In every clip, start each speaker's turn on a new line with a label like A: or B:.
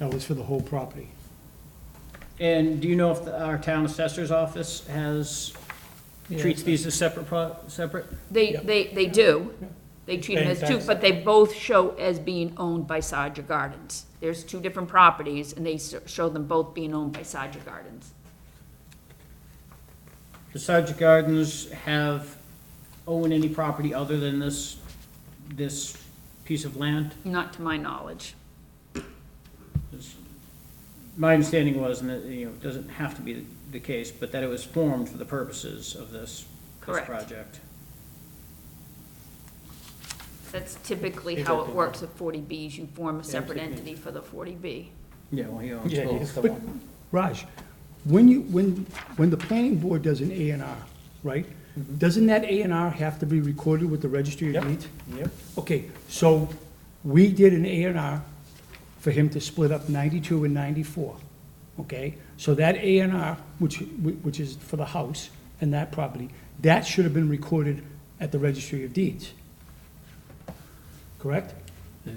A: No, it's for the whole property.
B: And do you know if the- our town assessor's office has, treats these as separate, pro- separate?
C: They,
A: Yep.
C: they, they do. They treat them
A: Paying
C: as two,
A: taxes.
C: but they both show as being owned by Saja Gardens. There's two different properties, and they s- show them both being owned by Saja Gardens.
B: Does Sargent Gardens have, own any property other than this, this piece of land?
C: Not to my knowledge.
B: My understanding was, and it, you know, it doesn't have to be the case, but that it was formed for the purposes of this, this
C: Correct.
B: project.
C: That's typically how it works with 40Bs. You form a separate entity for the 40B.
B: Yeah, well, he owns
D: Yeah,
B: both.
D: he's the
A: But,
D: one.
A: Raj, when you, when, when the planning board does an A and R, right? Doesn't that A and R have to be recorded with the registry of
D: Mm-hmm. Yep.
A: deeds?
D: Yep,
A: Okay, so we did an A and R for him to split up ninety-two and ninety-four, okay? So that A and R, which, which is for the house and that property, that should have been recorded at the registry of deeds. Correct?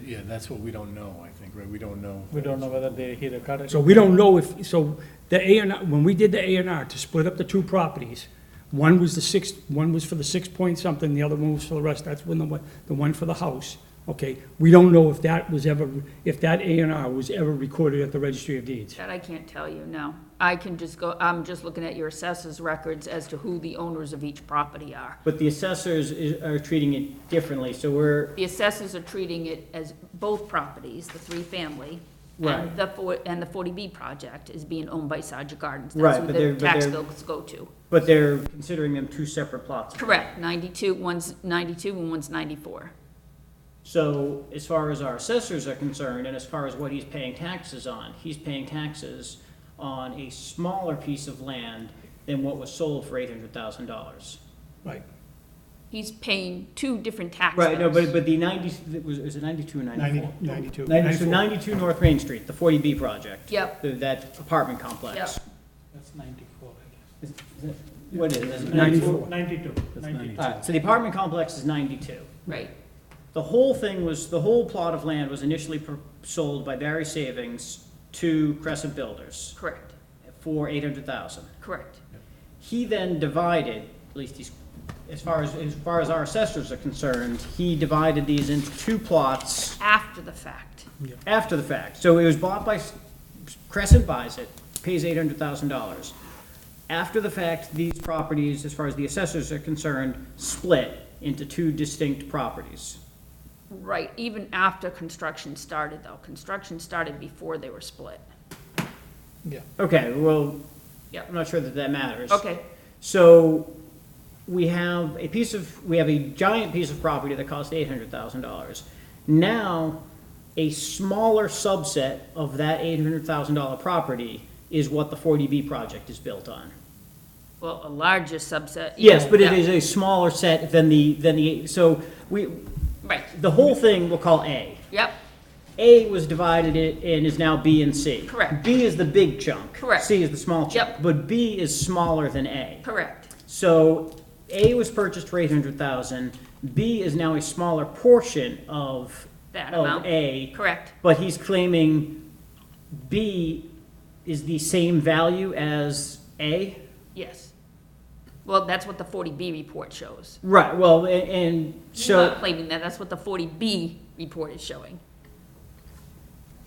E: Yeah, that's what we don't know, I think, right? We don't know.
D: we don't know whether they, he recorded.
A: So we don't know if, so the A and R, when we did the A and R to split up the two properties, one was the six, one was for the six point something, the other one was for the rest, that's when the one, the one for the house. Okay, we don't know if that was ever, if that A and R was ever recorded at the registry of deeds.
C: That I can't tell you, no. I can just go, I'm just looking at your assessor's records as to who the owners of each property are.
B: But the assessors is, are treating it differently, so we're,
C: The assessors are treating it as both properties, the three-family,
B: Right.
C: and the four, and the 40B project is being owned by Saja Gardens.
B: Right,
C: That's who
B: but
C: their
B: they're- but
C: tax
B: they're-
C: bills go to.
B: but they're considering them two separate plots.
C: Correct, 92, one's 92 and one's 94.
B: So as far as our assessors are concerned, and as far as what he's paying taxes on, he's paying taxes on a smaller piece of land than what was sold for eight hundred thousand dollars.
A: Right,
C: He's paying two different tax bills.
B: Right, no, but, but the ninety, it was, is it ninety-two or
A: ninety,
B: ninety-four?
A: ninety-two.
B: Ninety, so ninety-two North Main Street, the forty B project.
C: Yep.
B: the- That apartment complex.
D: That's ninety-four, I
B: Is- is that- What is it?
D: guess.
A: 94.
D: Ninety-two, ninety-two.
B: Alright, so the apartment complex is ninety-two.
C: Right,
B: The whole thing was, the whole plot of land was initially pr- sold by Barry Savings to Crescent Builders
C: correct,
B: for eight hundred thousand.
C: correct.
B: He then divided, at least he's, as far as, as far as our assessors are concerned, he divided these into two plots
C: After the fact,
B: after the fact. So it was bought by, Crescent buys it, pays eight hundred thousand dollars. After the fact, these properties, as far as the assessors are concerned, split into two distinct properties.
C: right, even after construction started, though. Construction started before they were split.
B: Okay, well,
C: Yep.
B: I'm not sure that that matters.
C: Okay,
B: So we have a piece of, we have a giant piece of property that cost eight hundred thousand dollars. Now, a smaller subset of that eight hundred thousand dollar property is what the forty B project is built on.
C: well, a larger subset.
B: Yes, but it
C: Yeah,
B: is a smaller set than the, than the, so we,
C: Right,
B: the whole thing we'll call A.
C: yep,
B: A was divided it and is now B and C.
C: Correct.
B: B is the big chunk.
C: Correct.
B: C is the small chunk.
C: Yep.
B: But B is smaller than A.
C: correct.
B: So A was purchased for eight hundred thousand, B is now a smaller portion of.
C: That
B: of
C: amount.
B: A.
C: Correct.
B: But he's claiming B is the same value as A?
C: Yes. Well, that's what the 40B report shows.
B: Right, well, a- and
C: He's not
B: so,
C: claiming that, that's what the 40B report is showing.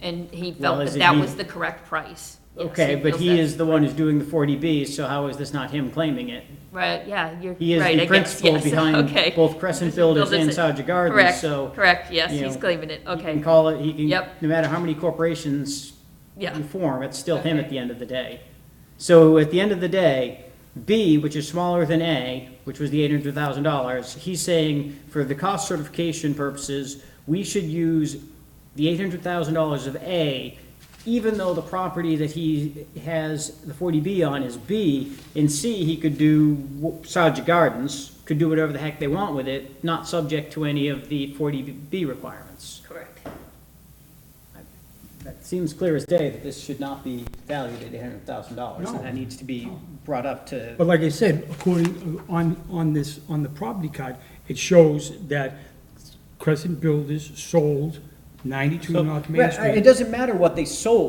C: And he
B: Well,
C: felt
B: is
C: that
B: it
C: that
B: he-
C: was the correct price. Yes,
B: okay, but
C: feels
B: he
C: that-
B: is the one who's doing the forty B, so how is this not him claiming it?
C: Right, yeah, you're right.
B: He is
C: I
B: the
C: guess,
B: principal
C: yes,
B: behind
C: okay.
B: both Crescent Builders and
C: Builders and-
B: Saja Gardens,
C: Correct,
B: so.
C: correct, yes,
B: you
C: he's
B: know,
C: claiming it,
B: He can
C: okay,
B: call it, he can,
C: Yep.
B: no matter how many corporations
C: yeah,
B: you form, it's still him at the end of the day. So at the end of the day, B, which is smaller than A, which was the eight hundred thousand dollars, he's saying for the cost certification purposes, we should use the eight hundred thousand dollars of A, even though the property that he has the forty B on is B, in C, he could do Sajah Gardens, could do whatever the heck they want with it, not subject to any of the forty B requirements.
C: correct.
B: That seems clear as day that this should not be valued at eight hundred thousand dollars, and that needs to be brought up to.
A: But like I said, according, on, on this, on the property card, it shows that Crescent Builders sold ninety-two North Main
B: Right,
A: Street.
B: It doesn't matter what they sold,